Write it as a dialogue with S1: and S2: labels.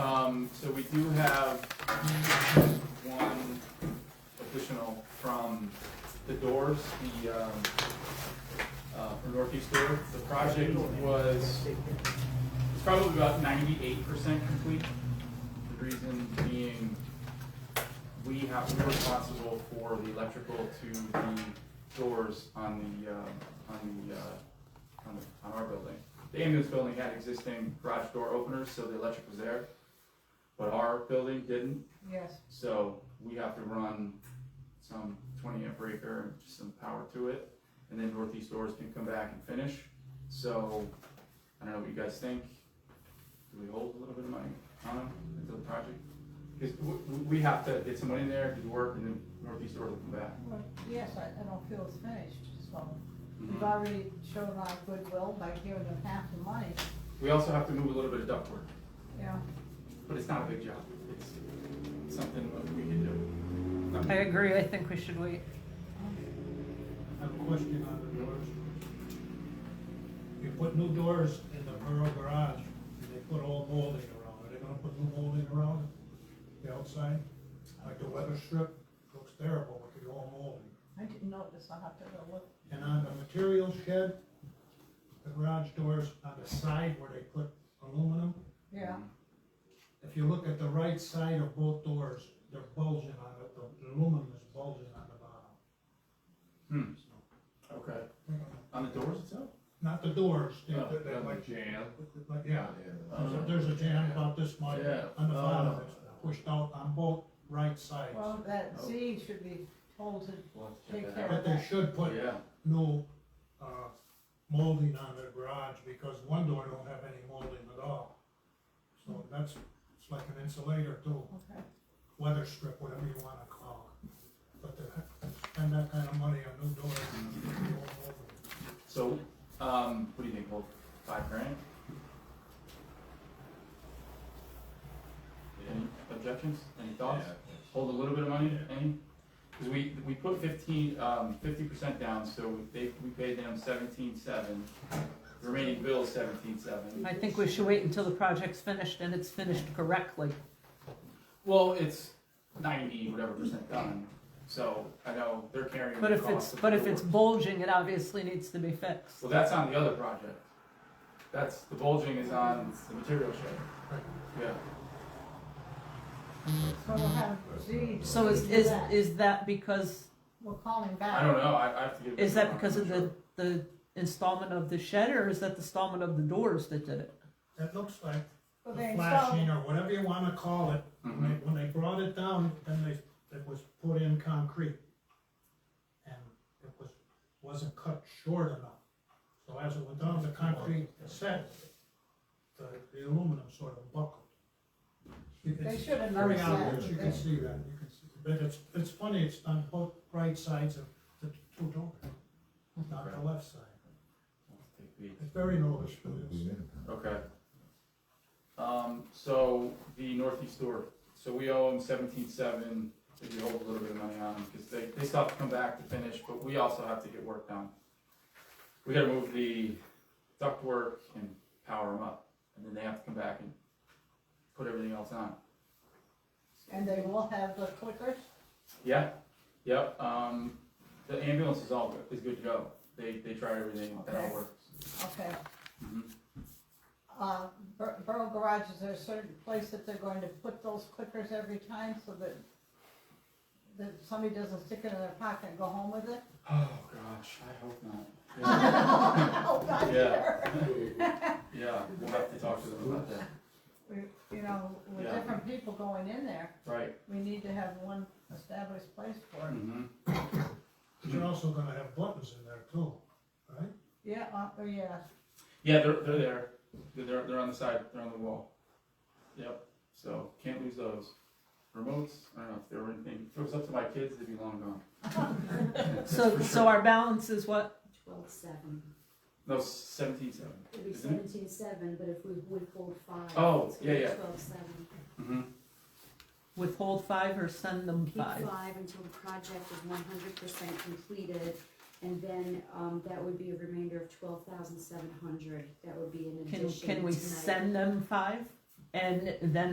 S1: Um, so we do have one additional from the doors, the, um, uh, from Northeast Door. The project was, it's probably about ninety-eight percent complete. The reason being, we have, we're responsible for the electrical to the doors on the, uh, on the, uh, on the, on our building. The ambulance building had existing garage door openers, so the electric was there, but our building didn't,
S2: Yes,
S1: so we have to run some twenty amp breaker and just some power to it, and then northeast doors can come back and finish. So, I don't know what you guys think, do we hold a little bit of money on them until the project? Because we, we have to get someone in there, do work, and then northeast doors will come back.
S2: well, yes, I, I don't feel it's finished, so
S1: Mm-hmm.
S2: we've already shown our goodwill by giving them half the money,
S1: We also have to move a little bit of ductwork,
S2: you know.
S1: but it's not a big job, it's something that we can do. Not-
S3: I agree, I think we should wait.
S4: I have a question on the doors. You put new doors in the borough garage, and they put all molding around, are they gonna put new molding around the outside? Like the weather strip, looks terrible with the all molding.
S2: I didn't notice, I'll have to go look.
S4: And on the material shed, the garage doors on the side where they put aluminum,
S2: Yeah,
S4: if you look at the right side of both doors, they're bulging on it, the aluminum is bulging on the bottom.
S1: Hmm, okay. On the doors itself?
S4: Not the doors, they're,
S1: Oh,
S4: they're
S1: on the
S4: like,
S1: jam.
S4: like, yeah.
S1: Uh-huh.
S4: There's a- Uh, There's a jam about this much
S1: Yeah.
S4: on the
S1: Oh.
S4: bottom, it's pushed out on both right sides.
S2: well, that Z should be told to
S1: Oh. We'll have to
S2: take
S1: check
S2: care
S1: that out.
S2: of
S4: But they
S2: that.
S4: should put
S1: Yeah,
S4: no, uh, molding on their garage, because one door don't have any molding at all. So that's, it's like an insulator too,
S2: Okay,
S4: weather strip, whatever you wanna call it. But to spend that kind of money on new doors, it's gonna be all over.
S1: so, um, what do you think, hold five grand? Any objections, any thoughts? Hold a little bit of money, any? Cause we, we put fifteen, um, fifty percent down, so they, we paid them seventeen seven, remaining bill seventeen seven.
S3: I think we should wait until the project's finished and it's finished correctly.
S1: Well, it's ninety whatever percent done, so I know they're carrying
S3: But
S1: the
S3: if it's,
S1: cost of
S3: but
S1: the
S3: if it's
S1: doors.
S3: bulging, it obviously needs to be fixed.
S1: Well, that's on the other project. That's, the bulging is on the material shed. Yeah.
S2: so we'll have Z.
S3: So is,
S2: do
S3: is,
S2: that.
S3: is that because,
S2: We'll call him back.
S1: I don't know, I, I have to give.
S3: is that
S1: I'm
S3: because of
S1: not
S3: the, the installment of the shed or is that the installment of the doors that did it?
S4: That looks like
S2: Well, they
S4: the
S2: installed-
S4: flashing or whatever you wanna call it,
S1: sure.
S4: When
S1: Mhm.
S4: they, when they brought it down, then they, it was put in concrete. And it was, wasn't cut short enough. So as it went down, the concrete set, the, the aluminum sort of buckled. You can-
S2: They should have
S4: Very
S2: noticed
S4: obvious, you can
S2: that.
S4: see that, you can see, but it's, it's funny, it's on both right sides of the two doors, not the left side. It's very noticeable, it's-
S1: Okay. Um, so the northeast door, so we owe them seventeen seven, if we hold a little bit of money on them, because they, they still have to come back to finish, but we also have to get work done. We gotta move the duct work and power them up, and then they have to come back and put everything else on.
S2: And they will have the clickers,
S1: Yeah, yep, um, the ambulance is all, good- is good to go, they, they tried everything, that all
S2: Okay.
S1: works.
S2: okay.
S1: Mhm.
S2: Uh, Bur- Borough Garage, is there a certain place that they're going to put those clickers every time so that that somebody doesn't stick it in their pocket and go home with it?
S1: Oh, gosh, I hope not.
S2: Oh,
S1: Yeah.
S2: God, yeah.
S1: Yeah, Yeah, we'll have to talk to them about that,
S2: We- You know, with
S1: Yeah.
S2: different people going in there,
S1: right.
S2: we need to have one established place for it.
S1: Mhm.
S4: but you're also gonna have buttons in there too, right?
S2: Yeah, uh, oh, yeah,
S1: Yeah, they're, they're there, they're, they're, they're on the side, they're on the wall. Yep, so, can't lose those. Remotes, I don't know if they were anything, if it was up to my kids, they'd be long gone.
S3: So,
S1: For
S3: so
S1: sure.
S3: our balance is what?
S5: Twelve seven,
S1: No, seventeen seven.
S5: it'd be
S1: Isn't
S5: seventeen seven, but if we withhold five.
S1: Oh,
S5: it's gonna be
S1: Mm-hmm. yeah, yeah.
S5: Twelve seven,
S1: Mm-hmm,
S3: Withhold five or send them
S5: keep
S3: five?
S5: five until the project is one hundred percent completed, and then, um, that would be a remainder of twelve thousand seven hundred, that would be an
S3: Can,
S5: addition
S3: can we
S5: tonight.
S3: send them five and then